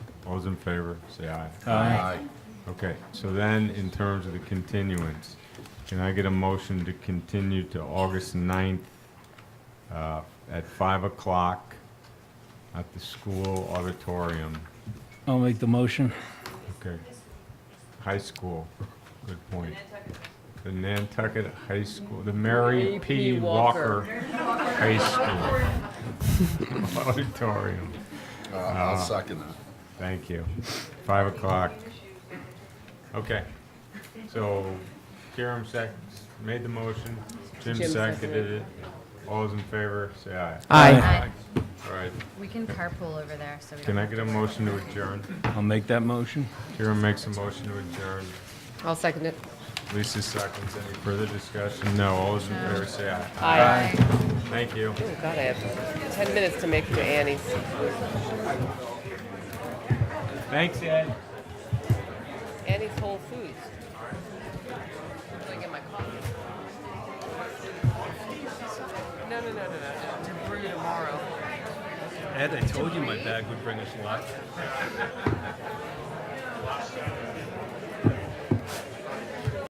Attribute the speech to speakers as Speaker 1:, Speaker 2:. Speaker 1: All those in favor, say aye.
Speaker 2: Aye.
Speaker 1: Okay, so then, in terms of the continuance, can I get a motion to continue to August 9th uh, at 5 o'clock at the school auditorium?
Speaker 2: I'll make the motion.
Speaker 1: Okay. High school, good point. The Nantucket High School, the Mary P. Walker High School auditorium.
Speaker 3: Uh, I'll second that.
Speaker 1: Thank you. Five o'clock. Okay. So Kiram sec, made the motion. Jim
Speaker 4: Jim
Speaker 1: seconded
Speaker 4: seconded
Speaker 1: it. All those in favor, say aye.
Speaker 2: Aye.
Speaker 5: Aye.
Speaker 1: All right.
Speaker 5: We can carpool over there, so we
Speaker 1: Can
Speaker 5: don't.
Speaker 1: I get a motion to adjourn?
Speaker 2: I'll make that motion.
Speaker 1: Kiram makes a motion to adjourn.
Speaker 4: I'll second it.
Speaker 1: Lisa seconds. Any further discussion? No. All those in favor, say aye.
Speaker 4: Aye.
Speaker 5: Aye.
Speaker 1: Thank you.
Speaker 4: Oh, God, I have 10 minutes to make for Annie's.
Speaker 1: Thanks, Ed.
Speaker 4: Annie's Whole Foods. I'm gonna get my coffee. No, no, no, no, no, to brew tomorrow.
Speaker 6: Ed, I told you my bag would bring us luck.